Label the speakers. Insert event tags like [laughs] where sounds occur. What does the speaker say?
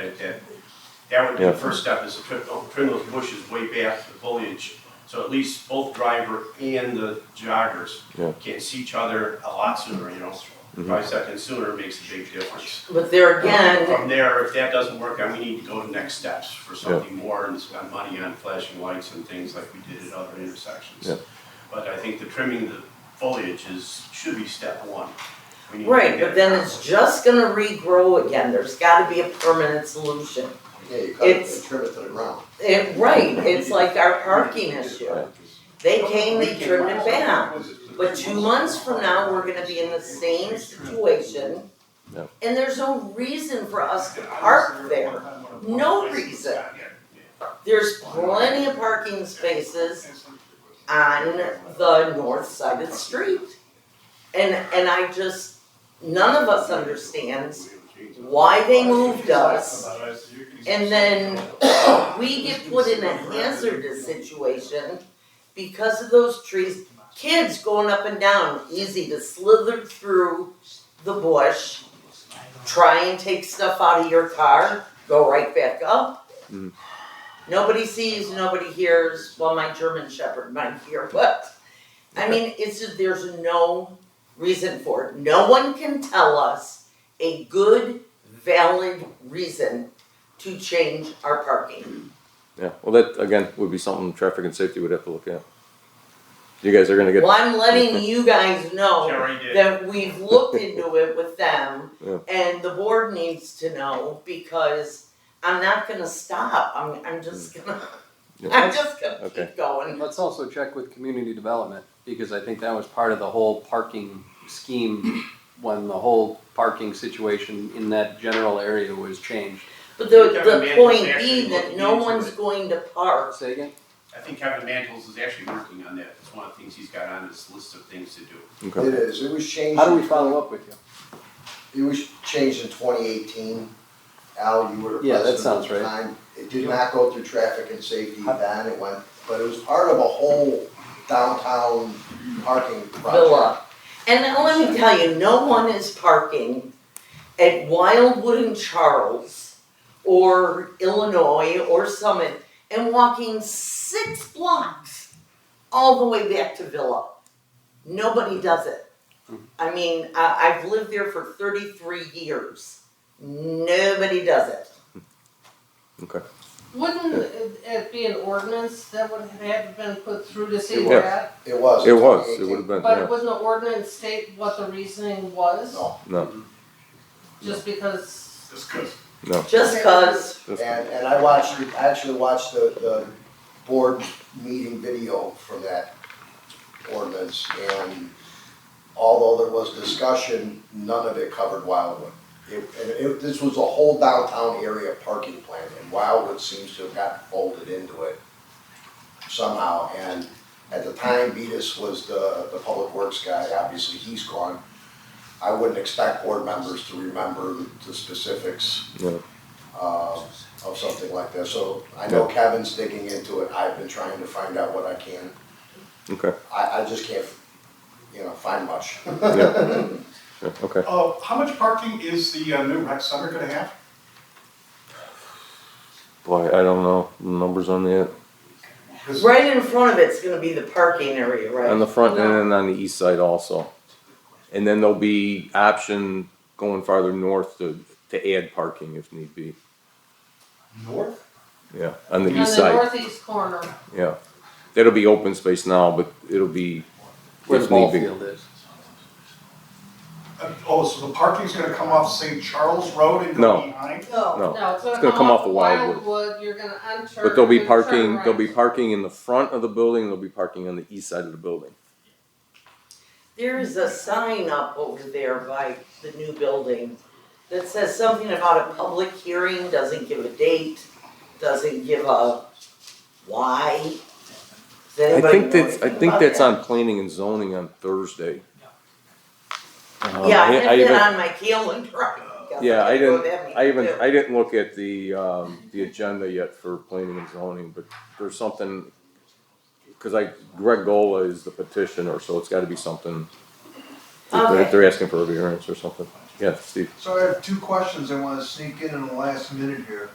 Speaker 1: at that. That would be
Speaker 2: Yeah.
Speaker 1: the first step, is to trim, oh, trim those bushes way back to the foliage. So at least both driver and the joggers
Speaker 2: Yeah. Mm-hmm.
Speaker 1: can see each other a lot sooner, you know? Five seconds sooner makes a big difference.
Speaker 3: But there again,
Speaker 1: From there, if that doesn't work, then we need to go to next steps for something more and spend money on flashing lights and things like we did at other
Speaker 2: Yeah.
Speaker 1: intersections. But I think the trimming the foliage is, should be step one. We need to
Speaker 3: right,
Speaker 1: get
Speaker 3: but
Speaker 1: it
Speaker 3: then
Speaker 1: done.
Speaker 3: it's just gonna regrow again, there's gotta be a permanent solution.
Speaker 4: Yeah, you cut it
Speaker 3: It's-
Speaker 4: and trim it to the ground.
Speaker 3: It, right, it's like our parking issue. They came, they turned it back, but two months from now, we're gonna be in the same situation.
Speaker 2: No.
Speaker 3: And there's no reason for us to park there. No reason. There's plenty of parking spaces on the north side of the street. And, and I just, none of us understands why they moved us. And then we get put in a hazardous situation because of those trees. Kids going up and down, easy to slither through the bush, try and take stuff out of your car, go right back up.
Speaker 2: Mhm.
Speaker 3: Nobody sees, nobody hears, well, my German shepherd might hear, but, I mean, it's just, there's no reason for it. No one can tell us a good, valid reason to change our parking.
Speaker 2: Yeah, well, that, again, would be something traffic and safety would have to look at. You guys are gonna get,
Speaker 3: Well,
Speaker 2: [laughs]
Speaker 3: I'm letting you guys know
Speaker 1: Jerry did.
Speaker 3: that we've looked into it with them
Speaker 2: [laughs] Yeah.
Speaker 3: and the board needs to know because I'm not gonna stop. I'm, I'm just gonna, [laughs]
Speaker 2: Yeah.
Speaker 3: I'm just gonna
Speaker 2: Mm. Okay.
Speaker 3: keep going.
Speaker 5: Let's also check with community development, because I think that was part of the whole parking scheme when the whole parking situation in that general area was changed.
Speaker 3: But the,
Speaker 1: Kevin
Speaker 3: the
Speaker 1: Mantle's
Speaker 3: point
Speaker 1: actually
Speaker 3: being that
Speaker 1: looking
Speaker 3: no
Speaker 1: into
Speaker 3: one's
Speaker 1: it.
Speaker 3: going to park.
Speaker 5: Say again?
Speaker 1: I think Kevin Mantles is actually working on that. It's one of the things he's got on his list of things to do.
Speaker 2: okay,
Speaker 4: It is, it was changed.
Speaker 5: How do we follow up with you?
Speaker 4: It was changed in twenty eighteen. Al, you were
Speaker 5: Yeah, that
Speaker 4: president at
Speaker 5: sounds
Speaker 4: the
Speaker 5: right.
Speaker 4: time. It did not go through traffic and safety then, it went, but it was part of a whole downtown parking project.
Speaker 3: Villa. And now let me tell you, no one is parking at Wildwood and Charles or Illinois or Summit and walking six blocks all the way back to Villa. Nobody does it.
Speaker 2: Hmm.
Speaker 3: I mean, I, I've lived there for 33 years. Nobody does it.
Speaker 2: okay.
Speaker 6: Wouldn't it- it be an ordinance that would have had been put through to see
Speaker 4: It
Speaker 2: was.
Speaker 6: that?
Speaker 4: It was.
Speaker 2: It
Speaker 4: in
Speaker 2: was, it
Speaker 4: 2018.
Speaker 2: would have been,
Speaker 6: But
Speaker 2: yeah,
Speaker 6: wouldn't the ordinance state what the reasoning was?
Speaker 4: No.
Speaker 2: no,
Speaker 6: Just because,
Speaker 2: no.
Speaker 3: Just cause,
Speaker 4: And, and I watched, I actually watched the, the board meeting video from that ordinance, and although there was discussion, none of it covered Wildwood. It, and it, this was a whole downtown area parking plan, and Wildwood seems to have got folded into it somehow, and at the time, Vetus was the, the public works guy, obviously, he's gone. I wouldn't expect board members to remember the- the specifics uh, of something like that. So I know Kevin's digging into it, I've been trying to find out what I can.
Speaker 2: Okay,
Speaker 4: I, I just can't, you know, find much. [laughs]
Speaker 2: yeah, okay.
Speaker 7: Uh, how much parking is the uh, new rec center gonna have?
Speaker 2: Boy, I don't know, the numbers on the,
Speaker 7: 'Cause
Speaker 3: right in front of it's gonna be the parking area, right?
Speaker 2: on the front end and on the east side also. And then there'll be option going farther north to, to add parking if need be,
Speaker 7: North?
Speaker 2: yeah, on the
Speaker 6: on
Speaker 2: east
Speaker 6: the
Speaker 2: side,
Speaker 6: northeast corner,
Speaker 2: yeah. That'll be open space now, but it'll be,
Speaker 5: Where the
Speaker 2: If need
Speaker 5: ball
Speaker 2: be.
Speaker 5: field is.
Speaker 7: Uh, Oh, so the parking's gonna come off St. Charles Road and
Speaker 2: No.
Speaker 7: go behind?
Speaker 2: no,
Speaker 6: no, it's
Speaker 2: Oh, gonna
Speaker 6: gonna
Speaker 2: come
Speaker 6: come off
Speaker 2: off of Wildwood.
Speaker 6: Wildwood, you're gonna enter.
Speaker 2: but there'll be
Speaker 6: you're gonna turn
Speaker 2: parking, there'll be
Speaker 6: right.
Speaker 2: parking in the front of the building, there'll be parking on the east side of the building.
Speaker 3: There is a sign up over there by the new building that says something about a public hearing, doesn't give a date, doesn't give a why. Does
Speaker 2: I
Speaker 3: anybody
Speaker 2: think
Speaker 3: know
Speaker 2: that's, I
Speaker 3: anything
Speaker 2: think
Speaker 3: about
Speaker 2: that's
Speaker 3: that?
Speaker 2: on planning and zoning on Thursday. Um, I-
Speaker 3: Yeah, I
Speaker 2: I
Speaker 3: have
Speaker 2: even-
Speaker 3: that on my calendar. [laughs]
Speaker 2: Yeah, I
Speaker 3: go
Speaker 2: didn't-
Speaker 3: to that meeting
Speaker 2: I even,
Speaker 3: too.
Speaker 2: I didn't look at the, um, the agenda yet for planning and zoning, but there's something, cause I, Greg Gola is the petitioner, so it's gotta be something. that They're,
Speaker 3: Okay.
Speaker 2: they're asking for a variance or something.
Speaker 8: yeah, Steve.
Speaker 4: So I have two questions I wanna sneak in in the last minute here.